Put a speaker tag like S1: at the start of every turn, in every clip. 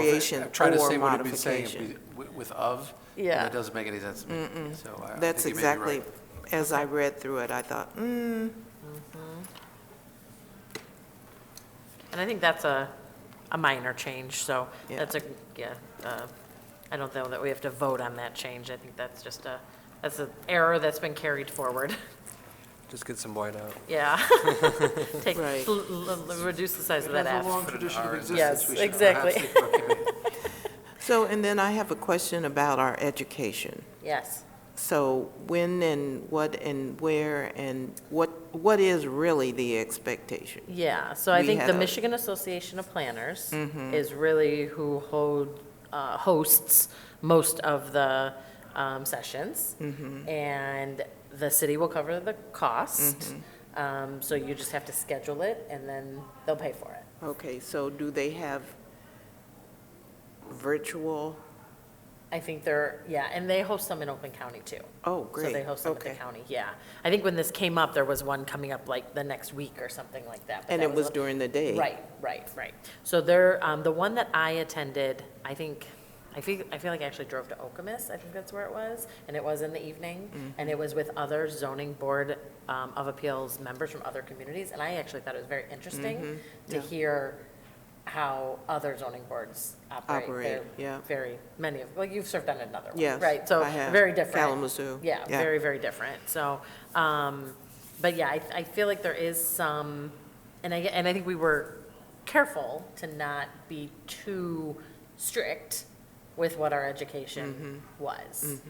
S1: variation
S2: Try to say
S1: or
S2: what we've been saying if
S1: modification.
S2: we- with of, and
S3: Yeah.
S2: that doesn't make any sense to me. So I- I
S1: That's
S2: think you may be right.
S1: exactly, as I read through it, I thought, hmm,
S3: And I think that's a, a minor change, so
S1: Yeah.
S3: that's a, yeah, uh, I don't know that we have to vote on that change. I think that's just a, that's an error that's been carried forward.
S4: Just get some white out.
S3: Yeah. Take,
S1: Right.
S3: l- l- l- reduce the size of that
S2: Has a long
S3: F.
S2: tradition of existence.
S3: Yes,
S2: We should
S3: exactly.
S2: perhaps look at it.
S1: So, and then I have a question about our education.
S3: Yes.
S1: So when and what and where and what, what is really the expectation?
S3: Yeah, so I
S1: We
S3: think
S1: had
S3: the
S1: a- Mm-hmm.
S3: Michigan Association of Planners is really who hold, uh, hosts most of the um, sessions.
S1: Mm-hmm.
S3: And the city will cover the cost.
S1: Mm-hmm.
S3: Um, So you just have to schedule it and then they'll pay for it.
S1: Okay, so do they have virtual?
S3: I think they're, yeah, and they host some in Oakland County too.
S1: Oh, great.
S3: So they host them at the
S1: Okay.
S3: county, yeah. I think when this came up, there was one coming up like the next week or something like that. but
S1: And
S3: that
S1: it was
S3: a-
S1: during the day?
S3: Right, right, right. So there, um, the one that I attended, I think, I feel, I feel like I actually drove to Okemos, I think that's where it was, and it was in the
S1: Mm-hmm.
S3: evening, and it was with other zoning board, um, of appeals members from other communities, and I actually thought it was very interesting to
S1: Mm-hmm. yeah.
S3: hear how other zoning boards operate.
S1: Operate,
S3: They're
S1: yeah.
S3: Very, many of, well, you've served on another one,
S1: Yes,
S3: right? So
S1: I have.
S3: very different.
S1: Kalamazoo,
S3: Yeah,
S1: yeah.
S3: very, very different. So, um, but yeah, I, I feel like there is some, and I, and I think we were careful to not be too strict with what our education
S1: Mm-hmm.
S3: was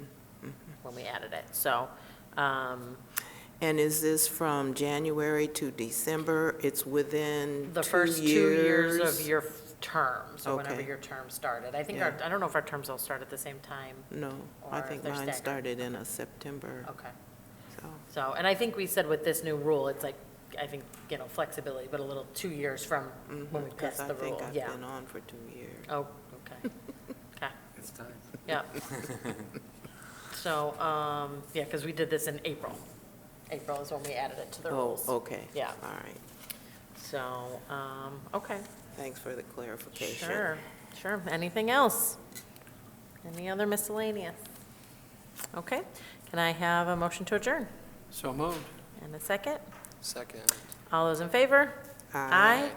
S3: when we added it. So, um,
S1: And is this from January to December? It's within
S3: the
S1: two
S3: first two years of your f- term, so whenever
S1: Okay.
S3: your term started. I think our,
S1: Yeah.
S3: I don't know if our terms all start at the same time.
S1: No, I
S3: or
S1: think
S3: they're
S1: mine
S3: staggered.
S1: started in a September,
S3: Okay.
S1: so,
S3: So, and I think we said with this new rule, it's like, I think, you know, flexibility, but a little two years from when we
S1: Mm-hmm, because
S3: passed
S1: I
S3: the rule,
S1: think I've
S3: yeah.
S1: been on for two years.
S3: Oh, okay, okay,
S2: It's time.
S3: yeah. So, um, yeah, because we did this in April. April is when we added it to the
S1: Oh,
S3: rules.
S1: okay.
S3: Yeah.
S1: All right,
S3: So, um, okay,
S1: thanks for the clarification.
S3: sure, sure. Anything else? Any other miscellaneous? Okay, can I have a motion to adjourn?
S2: So moved.
S3: And a second?
S4: Second.
S1: Uh,
S3: All those in favor?
S1: Aye.